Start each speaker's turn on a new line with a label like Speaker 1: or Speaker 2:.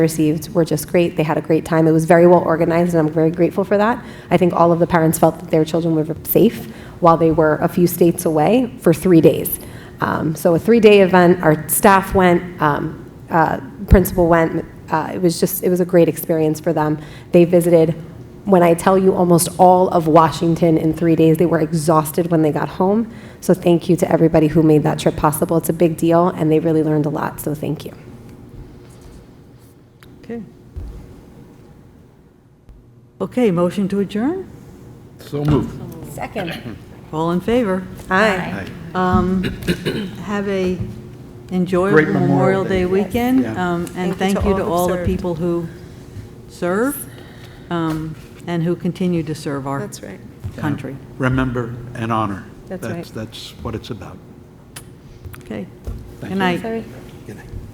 Speaker 1: received were just great. They had a great time. It was very well organized, and I'm very grateful for that. I think all of the parents felt that their children were safe while they were a few states away for three days. Um, so a three-day event. Our staff went. Um, uh, principal went. Uh, it was just it was a great experience for them. They visited when I tell you almost all of Washington in three days, they were exhausted when they got home. So thank you to everybody who made that trip possible. It's a big deal, and they really learned a lot, so thank you.
Speaker 2: Okay. Okay, motion to adjourn?
Speaker 3: So moved.
Speaker 1: Second.
Speaker 2: All in favor? Um,
Speaker 1: Aye.
Speaker 2: Have a enjoyable
Speaker 3: Great
Speaker 2: Memorial
Speaker 3: Memorial
Speaker 2: Day weekend,
Speaker 3: Yeah.
Speaker 2: um, and thank you to all the
Speaker 4: who've
Speaker 2: people who serve um, and who continue to serve our
Speaker 4: That's right.
Speaker 2: country.
Speaker 3: Remember and honor.
Speaker 4: That's right.
Speaker 3: That's what it's about.
Speaker 2: Okay.
Speaker 3: Thank
Speaker 2: Good
Speaker 3: you.
Speaker 2: night.
Speaker 1: Sorry.